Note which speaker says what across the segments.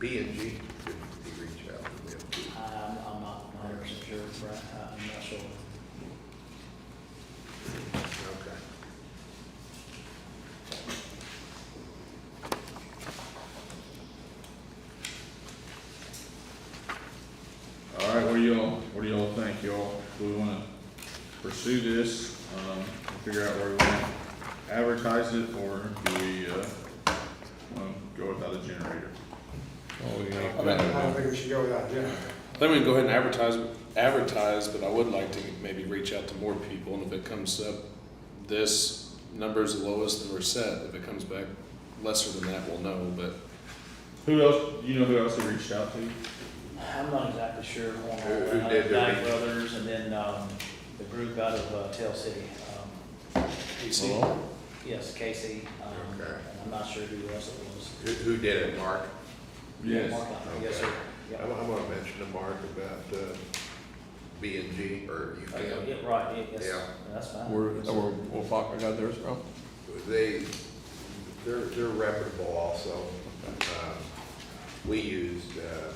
Speaker 1: B and G, could we reach out to them?
Speaker 2: I'm, Um, I'm not, I'm not sure, Brad, I- I'm not sure.
Speaker 1: Okay.
Speaker 3: All right, what do y'all, what do y'all think, y'all? Do we wanna pursue this, um, and figure out where we wanna advertise it, or do we, uh, wanna go without a generator?
Speaker 4: Well, we
Speaker 5: I
Speaker 4: can-
Speaker 5: don't, I don't think we should go without Jim.
Speaker 4: I think we can go ahead and advertise, advertise, but I would like to maybe reach out to more people, and if it comes up, this number's the lowest that we're set, if it comes back lesser than that, we'll know, but
Speaker 3: Who else, you know who else we reached out to?
Speaker 2: I'm not exactly sure on all
Speaker 1: Who- who
Speaker 2: that.
Speaker 1: did the
Speaker 2: Dyke
Speaker 1: re-
Speaker 2: Brothers and then, um, the group out of uh, Tell City, um,
Speaker 4: Casey?
Speaker 3: Malone?
Speaker 2: yes, Casey, um,
Speaker 1: Okay.
Speaker 2: and I'm not sure who else it was.
Speaker 1: Who, who did it, Mark?
Speaker 3: Yes,
Speaker 2: Mark Hunter, Yes, sir.
Speaker 1: Okay.
Speaker 2: Yep.
Speaker 1: I'm, I'm gonna mention to Mark about, uh, B and G, Uh, or you
Speaker 2: Okay,
Speaker 1: can.
Speaker 2: Yeah, right, yeah, yes,
Speaker 1: Yeah.
Speaker 2: that's fine.
Speaker 6: Where,
Speaker 2: Yes, sir.
Speaker 6: where Wolfacker got theirs from?
Speaker 1: They, they're, they're reputable also. Um, We used, uh,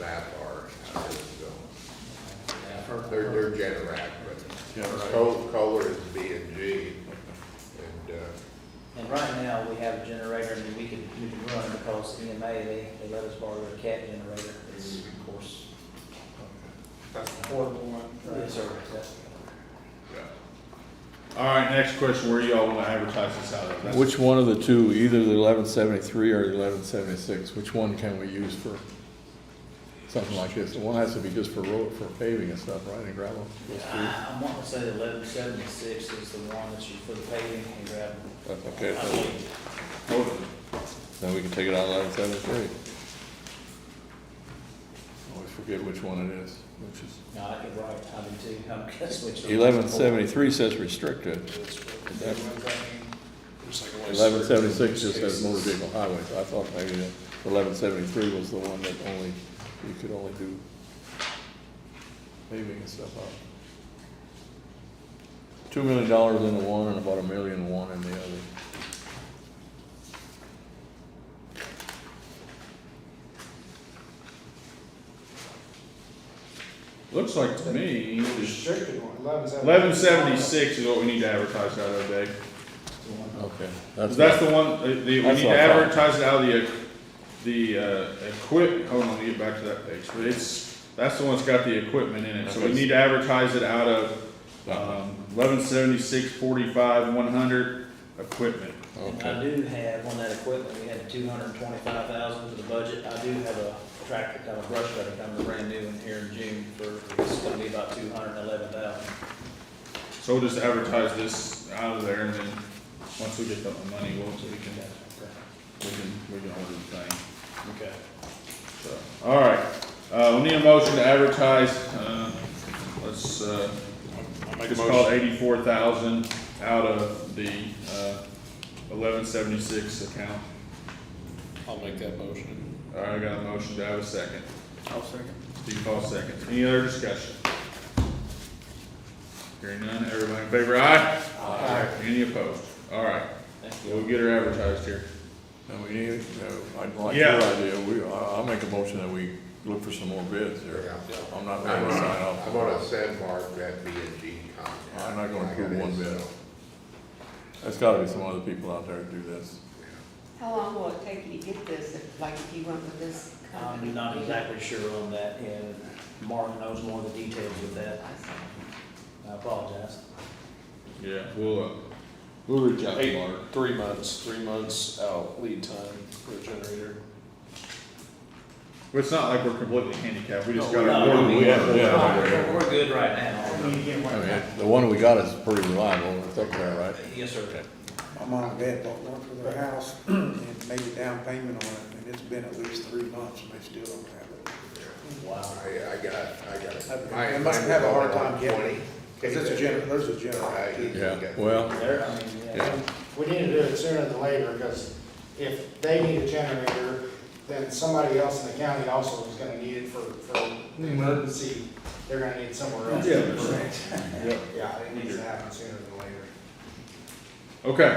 Speaker 1: Avatar out of Arizona.
Speaker 2: Yeah, I've heard-
Speaker 1: They're, they're Generac, but
Speaker 6: Yeah,
Speaker 1: Col- Kohler is B and G. And, uh,
Speaker 2: And right now, we have a generator and we can, we can run because EMA, they, they let us borrow their cat generator. It's, of course,
Speaker 5: That's the portable one.
Speaker 2: it's a, that's,
Speaker 3: all right, next question, where do y'all wanna advertise this out of? That's-
Speaker 6: Which one of the two, either the eleven seventy-three or the eleven seventy-six, which one can we use for something like this? The one has to be just for road, for paving and stuff, right, and gravel? those two?
Speaker 2: I- I'm wanting to say the eleven seventy-six is the one that you put paving and gravel.
Speaker 6: That's
Speaker 2: I
Speaker 6: okay, so
Speaker 2: believe.
Speaker 3: Both of them.
Speaker 6: then we can take it out eleven seventy-three. Always forget which one it is, which is,
Speaker 2: No, I could write, I do too, I'm guessing which.
Speaker 6: eleven seventy-three says restricted, eleven seventy-six just says motor vehicle highways. I thought maybe eleven seventy-three was the one that only, you could only do paving and stuff up. Two million dollars in the one and about a million one in the other.
Speaker 3: Looks like to me,
Speaker 5: The Restricted one, eleven seventy.
Speaker 3: eleven seventy-six is what we need to advertise out of, Dave.
Speaker 2: The one-
Speaker 6: Okay.
Speaker 3: That's the one, the, the- we
Speaker 6: That's
Speaker 3: need to
Speaker 6: what I thought.
Speaker 3: advertise it out of the, the, uh, equip, hold on, let me get back to that page, but it's, that's the one that's got the equipment in it, so we
Speaker 6: Okay.
Speaker 3: need to advertise it out of, um, eleven seventy-six forty-five one hundred, equipment.
Speaker 2: And I do have on that equipment, we had two hundred and twenty-five thousand for the budget. I do have a tractor, kind of brush cutter, kind of brand new in here in June for, it's gonna be about two hundred and eleven thousand.
Speaker 3: So we'll just advertise this out of there, and then, once we get the money, we'll, we can, we can, we can order the thing.
Speaker 2: Okay.
Speaker 3: So, All right, uh, we need a motion to advertise, uh, let's, uh, it's called eighty-four thousand out of the, uh, eleven seventy-six account.
Speaker 4: I'll make that motion.
Speaker 3: All right, I got a motion, do I have a second? I'll second. Steve Paul seconds, any other discussion? Hearing none, everybody in favor, aye? Aye. Any opposed? All right,
Speaker 2: Thank you.
Speaker 3: we'll get her advertised here.
Speaker 6: No, Uh, we need, no, I'd like your
Speaker 3: Yeah.
Speaker 6: idea, we, I- I'll make a motion that we look for some more bids here.
Speaker 1: yeah.
Speaker 6: I'm not
Speaker 1: I'm
Speaker 6: gonna
Speaker 1: gonna-
Speaker 6: sign
Speaker 1: I'm gonna
Speaker 6: off.
Speaker 1: send Mark that B and G contract.
Speaker 6: I'm not gonna approve one bid.
Speaker 1: So,
Speaker 6: There's gotta be some other people out there to do this.
Speaker 1: yeah.
Speaker 7: How long will it take you to get this, if, like, if you went with this company?
Speaker 2: I'm Um, not exactly sure on that, and Mark knows more of the details of that.
Speaker 7: I see.
Speaker 2: I apologize.
Speaker 3: Yeah, we'll, uh, we'll reach out to
Speaker 4: Eight,
Speaker 3: Mark.
Speaker 4: three months, three months out lead time for a generator.
Speaker 3: It's not like we're completely handicapped, we just
Speaker 4: No,
Speaker 3: gotta.
Speaker 2: no,
Speaker 3: order
Speaker 2: we-
Speaker 3: one.
Speaker 6: yeah, yeah.
Speaker 2: We're we're good right now.
Speaker 5: When you get
Speaker 6: I
Speaker 5: one,
Speaker 6: mean, the one we got is pretty reliable, it's up there, right?
Speaker 2: Yes, sir.
Speaker 8: I'm on a bed, bought one for their house and made a down payment on it, and it's been at least three months and they still don't have it.
Speaker 2: Wow.
Speaker 1: I, I got, I got.
Speaker 8: I-
Speaker 1: mine-
Speaker 8: They must
Speaker 1: mine
Speaker 8: have a
Speaker 1: was
Speaker 8: hard
Speaker 1: only
Speaker 8: time getting
Speaker 1: 20.
Speaker 8: it. Cause it's a gener, there's a
Speaker 1: I-
Speaker 8: generator. too.
Speaker 6: Yeah, well,
Speaker 2: There, I mean, yeah.
Speaker 5: we need to do it sooner than later, because if they need a generator, then somebody else in the county also is gonna need it for, for an emergency, they're gonna need somewhere else.
Speaker 3: Yeah, that's
Speaker 5: Yeah, it needs to happen sooner than later.
Speaker 3: Okay,